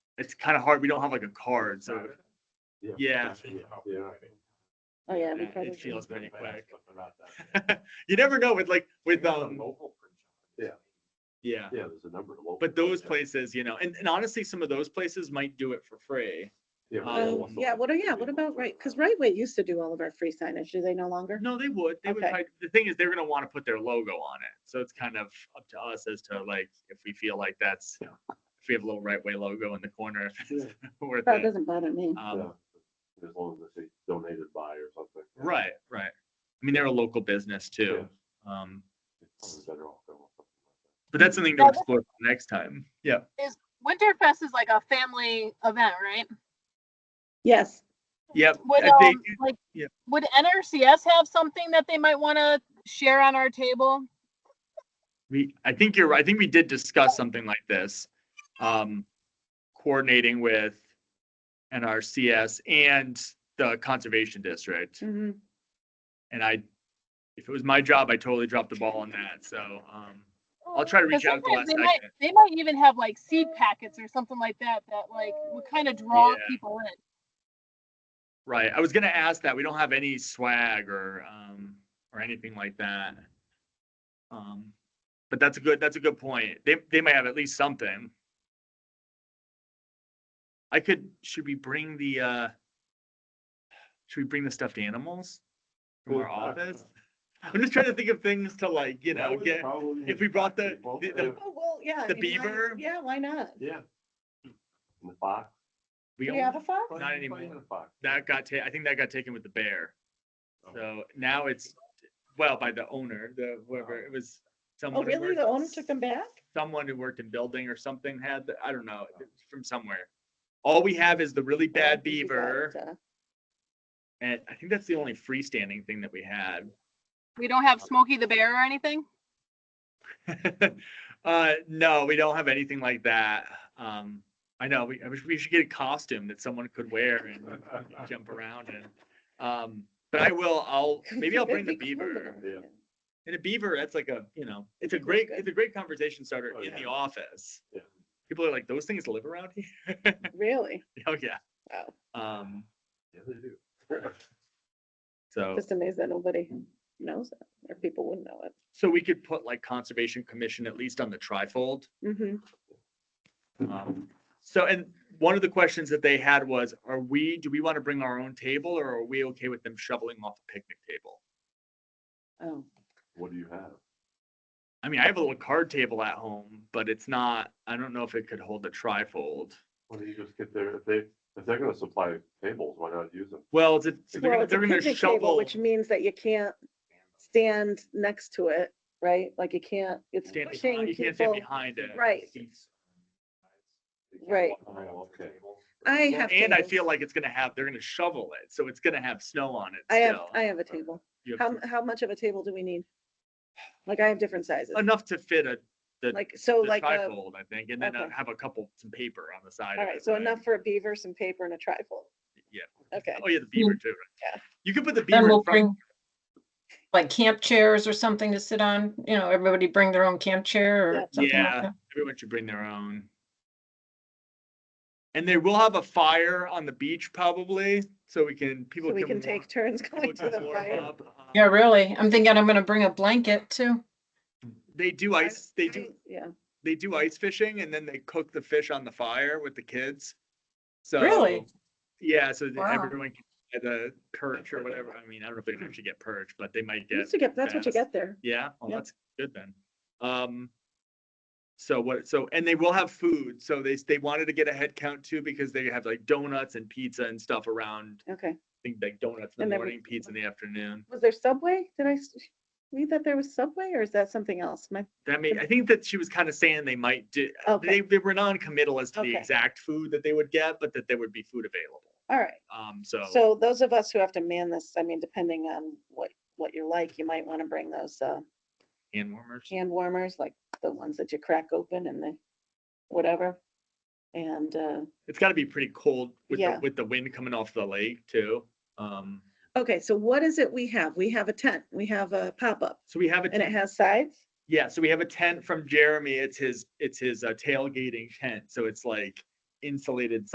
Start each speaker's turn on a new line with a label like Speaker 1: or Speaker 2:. Speaker 1: it's kind of hard. We don't have like a card, so Yeah.
Speaker 2: Yeah.
Speaker 3: Oh, yeah, we
Speaker 1: Yeah, it
Speaker 3: probably. should.
Speaker 1: feels- pretty quick. you never know with like with um
Speaker 2: Yeah.
Speaker 1: yeah.
Speaker 2: Yeah, there's a number of. local
Speaker 1: But those
Speaker 2: printouts.
Speaker 1: places, you know, and, and honestly, some of those places might do it for free.
Speaker 2: Yeah.
Speaker 3: Oh,
Speaker 1: Um,
Speaker 3: yeah, what, are- yeah, what about Right? Because Right Way used to do all of our free signage. Do they no longer?
Speaker 1: No, they would. They would.
Speaker 3: Okay.
Speaker 1: try- The thing is, they're gonna want to put their logo on it. So it's kind of up to us as to like if we feel like that's if we have a little right way logo in the corner, if it's worth
Speaker 3: That
Speaker 1: it.
Speaker 3: doesn't bother me.
Speaker 1: Um,
Speaker 2: Yeah. As long as they say donated by or something. yeah.
Speaker 1: Right, right. I mean, they're a local business too. Um,
Speaker 2: It's probably better off going with something like that.
Speaker 1: but that's something to
Speaker 4: Yeah.
Speaker 1: explore next time. Yeah.
Speaker 4: Winterfest is like a family event, right?
Speaker 3: Yes,
Speaker 1: Yep.
Speaker 4: Would,
Speaker 1: I think-
Speaker 4: um, like,
Speaker 1: yeah.
Speaker 4: would NRCS have something that they might want to share on our table?
Speaker 1: We, I think you're right. I think we did discuss something like this. Um, coordinating with NRCS and the conservation district.
Speaker 3: mhm.
Speaker 1: And I, if it was my job, I totally dropped the ball on that. So, um, I'll try to
Speaker 4: 'Cause
Speaker 1: reach out at the
Speaker 4: sometimes
Speaker 1: last
Speaker 4: They might,
Speaker 1: second.
Speaker 4: they might even have like seed packets or something like that, that like would kind of draw
Speaker 1: Yeah.
Speaker 4: people in.
Speaker 1: Right. I was gonna ask that. We don't have any swag or, um, or anything like that. Um, but that's a good, that's a good point. They, they may have at least something. I could, should we bring the, uh, should we bring the stuffed animals from our
Speaker 2: Yeah.
Speaker 1: office? I'm just trying to think of things to like, you
Speaker 2: uh, That
Speaker 1: know,
Speaker 2: would
Speaker 1: get,
Speaker 2: probably
Speaker 1: if we brought the,
Speaker 2: people,
Speaker 1: the- the-
Speaker 2: yeah.
Speaker 3: Oh, well, yeah. I
Speaker 1: The
Speaker 3: mean, why-
Speaker 1: beaver?
Speaker 3: Yeah, why not?
Speaker 2: Yeah. And the fox.
Speaker 1: we,
Speaker 3: Do you
Speaker 1: all-
Speaker 3: have a fox?
Speaker 2: Why
Speaker 1: Not
Speaker 2: don't you play
Speaker 1: anymore.
Speaker 2: with a fox?
Speaker 1: that got ta, I think that got taken with the bear.
Speaker 2: Oh.
Speaker 1: So now it's, well, by the owner, the, whoever, it was
Speaker 3: Oh,
Speaker 1: someone. who
Speaker 3: really?
Speaker 1: worked-
Speaker 3: The owner took them back?
Speaker 1: someone who worked in building or something had, the- I don't know, from somewhere. All we have is the really bad
Speaker 3: We got,
Speaker 1: beaver,
Speaker 3: uh,
Speaker 1: and I think that's the only freestanding thing that we had.
Speaker 4: We don't have Smokey the Bear or anything?
Speaker 1: Uh, no, we don't have anything like that. Um, I know, we, I wish we should get a costume that someone could wear and jump around in. Um, but I will, I'll, maybe I'll bring the
Speaker 3: that'd be cool,
Speaker 1: beaver.
Speaker 3: though.
Speaker 2: Yeah.
Speaker 1: And a beaver, that's like a, you know, it's a great, it's a great conversation starter
Speaker 2: Oh,
Speaker 1: in the
Speaker 2: yeah.
Speaker 1: office.
Speaker 2: Yeah.
Speaker 1: People are like, those things live around here?
Speaker 3: Really?
Speaker 1: Oh, yeah.
Speaker 3: Wow.
Speaker 1: Um,
Speaker 2: Yeah, they do.
Speaker 1: so,
Speaker 3: Just amazed that nobody knows it or people wouldn't know it.
Speaker 1: so we could put like Conservation Commission at least on the trifold.
Speaker 3: Mm-hmm.
Speaker 1: Um, So, and one of the questions that they had was, are we, do we want to bring our own table or are we okay with them shoveling off a picnic table?
Speaker 3: Oh,
Speaker 2: What do you have?
Speaker 1: I mean, I have a little card table at home, but it's not, I don't know if it could hold a trifold.
Speaker 2: Why don't you just get there, if they, if they're gonna supply tables, why not use them?
Speaker 1: Well, it's, it's- they're
Speaker 3: well,
Speaker 1: gonna,
Speaker 3: it's a
Speaker 1: they're gonna
Speaker 3: picnic table,
Speaker 1: shovel.
Speaker 3: which means that you can't stand next to it, right? Like you can't, it's
Speaker 1: stand
Speaker 3: pushing
Speaker 1: behind- You can't stand
Speaker 3: people.
Speaker 1: behind it.
Speaker 3: Right. Right.
Speaker 2: Oh, okay.
Speaker 3: I
Speaker 1: Well,
Speaker 3: have.
Speaker 1: And I
Speaker 3: tables.
Speaker 1: feel like it's gonna have, they're gonna shovel it, so it's gonna have snow on it
Speaker 3: I have,
Speaker 1: still.
Speaker 3: I have a table.
Speaker 1: You have
Speaker 3: How, how much of a table do we need? Like I have different sizes,
Speaker 1: Enough to fit a, the,
Speaker 3: like, so
Speaker 1: the
Speaker 3: like, a-
Speaker 1: trifold, I think, and then uh,
Speaker 3: okay.
Speaker 1: have a couple, some paper on the side.
Speaker 3: all
Speaker 1: of
Speaker 3: right,
Speaker 1: it,
Speaker 3: so
Speaker 1: right?
Speaker 3: enough for a beaver, some paper and a trifold.
Speaker 1: Yeah.
Speaker 3: Okay,
Speaker 1: Oh, yeah, the beaver too. right?
Speaker 3: Yeah.
Speaker 1: You could put the beaver
Speaker 5: Then
Speaker 1: in
Speaker 5: we'll
Speaker 1: front,
Speaker 5: bring like camp chairs or something to sit on, you know, everybody bring their own camp chair
Speaker 3: Yeah.
Speaker 5: or something
Speaker 1: Yeah.
Speaker 5: like that.
Speaker 1: everyone should bring their own. And they will have a fire on the beach probably, so we can, people
Speaker 3: so
Speaker 1: can.
Speaker 3: we can
Speaker 1: warm-
Speaker 3: take turns
Speaker 1: people
Speaker 3: going to
Speaker 1: can
Speaker 3: the
Speaker 1: warm
Speaker 3: fire.
Speaker 1: up, uh,
Speaker 5: Yeah, really. I'm thinking I'm gonna bring a blanket too.
Speaker 1: They do
Speaker 3: I-
Speaker 1: ice, they do,
Speaker 3: Yeah,
Speaker 1: they do ice fishing and then they cook the fish on the fire with the kids. So.
Speaker 5: Really?
Speaker 1: Yeah, so that
Speaker 5: Wow.
Speaker 1: everyone can get the perch or whatever. I mean, I don't know if they can actually get perch, but they might
Speaker 3: You
Speaker 1: get,
Speaker 3: used to get, that's what you
Speaker 1: bass.
Speaker 3: get there.
Speaker 1: yeah, well,
Speaker 3: Yeah.
Speaker 1: that's good then. Um. So what, so, and they will have food. So they, s- they wanted to get a head count too because they have like donuts and pizza and stuff around.
Speaker 3: Okay,
Speaker 1: I think like donuts in
Speaker 3: And
Speaker 1: the
Speaker 3: then we-
Speaker 1: morning, pizza in the afternoon.
Speaker 3: was there Subway? Did I s- read that there was Subway or is that something else? My,
Speaker 1: That may, I think that she was kind of saying they might do,
Speaker 3: okay,
Speaker 1: they, they were non-committal as to the
Speaker 3: Okay.
Speaker 1: exact food that they would get, but that there would be food available.
Speaker 3: all right.
Speaker 1: Um, so,
Speaker 3: So those of us who have to man this, I mean, depending on what, what you're like, you might want to bring those, uh,
Speaker 1: hand warmers.
Speaker 3: hand warmers, like the ones that you crack open and the whatever. And, uh,
Speaker 1: It's got to be pretty cold with the,
Speaker 3: Yeah.
Speaker 1: with the wind coming off the lake too. Um,
Speaker 3: okay, so what is it we have? We have a tent, we have a pop-up
Speaker 1: so we have a
Speaker 3: and it
Speaker 1: tent-
Speaker 3: has sides?
Speaker 1: yeah, so we have a tent from Jeremy. It's his it's his uh, tailgating tent. So it's like insulated